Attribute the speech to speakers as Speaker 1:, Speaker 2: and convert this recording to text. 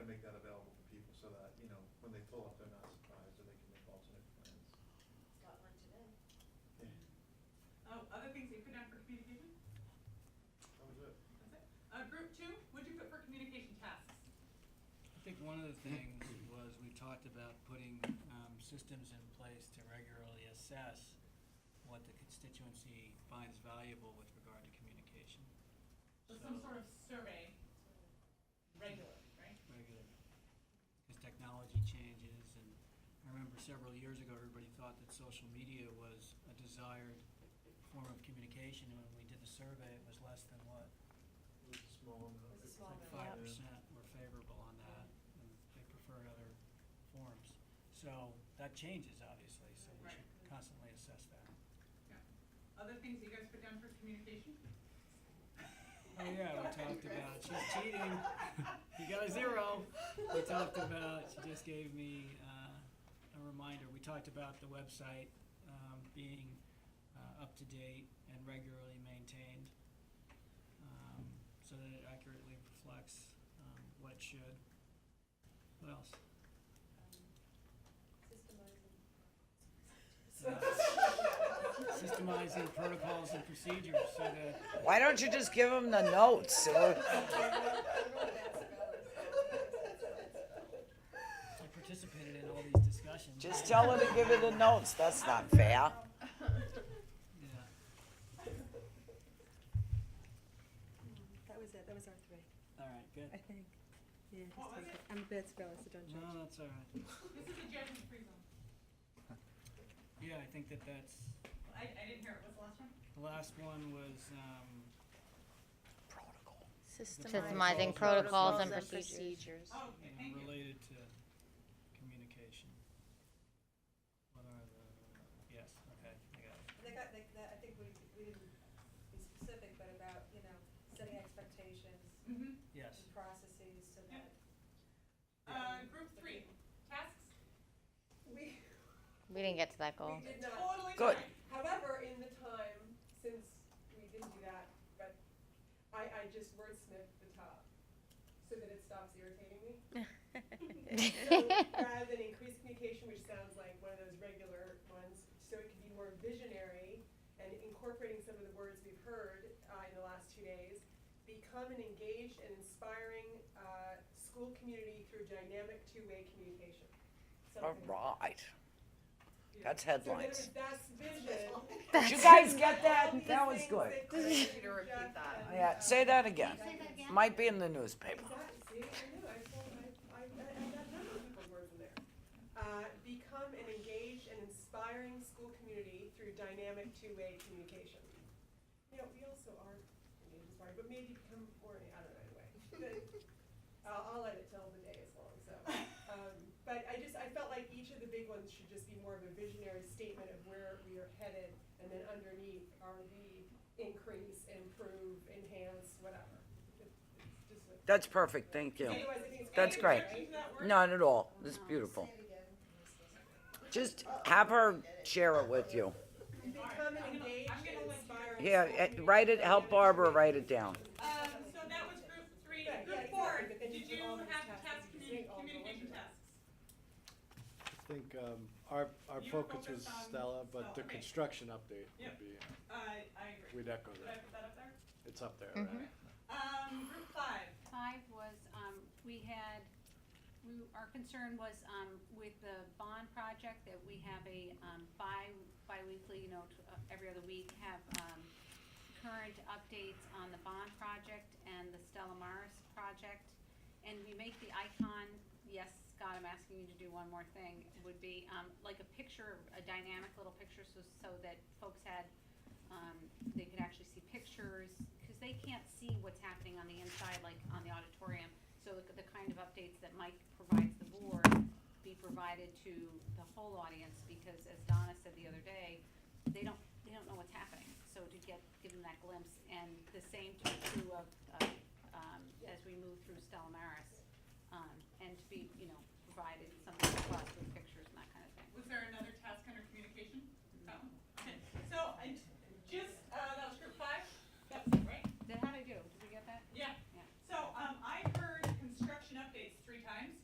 Speaker 1: Oh, other things that you put down for communication?
Speaker 2: That was it.
Speaker 1: That's it. Uh, group two, what'd you put for communication tasks?
Speaker 3: I think one of the things was we talked about putting um, systems in place to regularly assess what the constituency finds valuable with regard to communication.
Speaker 1: So some
Speaker 3: So-
Speaker 1: sort of survey, regular, right?
Speaker 3: regular, because technology changes, and I remember several years ago, everybody thought that social media was a desired form of communication, and when we did the survey, it was less than what?
Speaker 2: It was a small amount.
Speaker 4: It was a
Speaker 2: It's
Speaker 4: small
Speaker 2: like
Speaker 3: Like
Speaker 4: amount.
Speaker 3: five
Speaker 4: Yeah.
Speaker 3: percent were favorable on that, and they preferred other forms. So that changes, obviously, so we should
Speaker 1: Right.
Speaker 3: constantly assess that.
Speaker 1: Yeah. Other things that you guys put down for communication?
Speaker 3: Oh, yeah,
Speaker 4: Go
Speaker 3: we
Speaker 4: ahead,
Speaker 3: talked
Speaker 4: Chris.
Speaker 3: about, she's cheating. You got a zero. We talked about, she just gave me uh, a reminder, we talked about the website um, being uh, up to date and regularly maintained, um, so that it accurately reflects um, what it should. What else?
Speaker 4: um,
Speaker 3: Uh, Systemizing protocols and procedures, so that,
Speaker 5: Why don't you just give them the notes? So-
Speaker 3: I participated in all these discussions.
Speaker 5: Just tell her to give you the notes, that's not fair.
Speaker 3: Yeah.
Speaker 4: That was it, that was our three,
Speaker 3: All right, good.
Speaker 4: I think. Yeah, just
Speaker 1: What was
Speaker 4: take
Speaker 1: it?
Speaker 4: it. I'm a bad speller, so don't
Speaker 3: No,
Speaker 4: judge.
Speaker 3: that's all right.
Speaker 1: This is a judgment-free zone.
Speaker 3: Yeah, I think that that's,
Speaker 1: I, I didn't hear it. What's the last one?
Speaker 3: the last one was, um,
Speaker 5: Protocol.
Speaker 6: Systemizing protocols and procedures.
Speaker 1: Oh, okay,
Speaker 3: you know,
Speaker 1: thank you.
Speaker 3: related to communication. What are the, yes, okay, I got it.
Speaker 4: They got, they, that, I think we, we didn't be specific, but about, you know, setting expectations
Speaker 1: Mm-hmm.
Speaker 3: Yes.
Speaker 4: processes so
Speaker 1: that Uh, group three, tasks?
Speaker 4: We,
Speaker 6: We didn't get to that
Speaker 4: we
Speaker 6: goal.
Speaker 4: did not,
Speaker 1: Totally
Speaker 5: Good.
Speaker 1: fine.
Speaker 4: however, in the time since we didn't do that, but I, I just wordsmithed the top so that it stops irritating me. So rather than increased communication, which sounds like one of those regular ones, so it can be more visionary and incorporating some of the words we've heard uh, in the last two days, become an engaged and inspiring uh, school community through dynamic two-way communication.
Speaker 5: All
Speaker 4: Something-
Speaker 5: right,
Speaker 4: Yeah.
Speaker 5: that's
Speaker 4: So in other
Speaker 5: headlines.
Speaker 4: words, that's vision.
Speaker 5: Did you guys get that? That was good.
Speaker 4: need to repeat that.
Speaker 5: Yeah, say that again. Might be in the newspaper.
Speaker 4: Exactly, see, I knew, I told, I, I, I I got none of the words in there. Uh, become an engaged and inspiring school community through dynamic two-way communication. You know, we also are engaged and inspiring, but maybe become more, I don't know, anyway. But I'll, I'll let it till the day is long, so. Um, but I just, I felt like each of the big ones should just be more of a visionary statement of where we are headed, and then underneath are the increase, improve, enhance, whatever. It's- it's just like-
Speaker 5: That's perfect, thank you.
Speaker 4: Otherwise, I think it's-
Speaker 5: That's
Speaker 4: Any
Speaker 5: great.
Speaker 4: objections to that word?
Speaker 5: Not at all, it's beautiful. Just have her share it with you.
Speaker 4: Become an engaged
Speaker 1: I'm
Speaker 4: and
Speaker 1: gonna let you-
Speaker 4: inspiring
Speaker 5: Yeah,
Speaker 4: school
Speaker 5: eh, write it, help Barbara write it down.
Speaker 1: Um, so that was group three.
Speaker 4: Yeah, yeah,
Speaker 1: Group four,
Speaker 4: exactly, but then
Speaker 1: did
Speaker 4: you put
Speaker 1: you
Speaker 4: all those
Speaker 1: have
Speaker 4: tasks,
Speaker 1: task
Speaker 4: you say
Speaker 1: communi-
Speaker 4: all the
Speaker 1: communication
Speaker 4: ones.
Speaker 1: tasks?
Speaker 2: I think um, our, our
Speaker 1: You
Speaker 2: focus was
Speaker 1: focused on
Speaker 2: Stella, but the
Speaker 1: Stella, okay.
Speaker 2: construction update
Speaker 1: Yep.
Speaker 2: would be, uh,
Speaker 1: I, I agree.
Speaker 2: we'd echo
Speaker 1: Did I
Speaker 2: that.
Speaker 1: put that up there?
Speaker 2: It's up there, right?
Speaker 1: Um, group five,
Speaker 7: Five was, um, we had, we, our concern was, um, with the bond project that we have a, um, bi, bi-weekly, you know, t- uh, every other week have, um, current updates on the bond project and the Stella Maris project. And we make the icon, yes, Scott, I'm asking you to do one more thing, would be, um, like a picture, a dynamic little picture, so, so that folks had um, they could actually see pictures, because they can't see what's happening on the inside, like on the auditorium. So the, the kind of updates that Mike provides the board be provided to the whole audience, because as Donna said the other day, they don't, they don't know what's happening. So to get, give them that glimpse, and the same to be true of, of, um, as we move through Stella Maris. Um, and to be, you know, provided
Speaker 1: uh, um,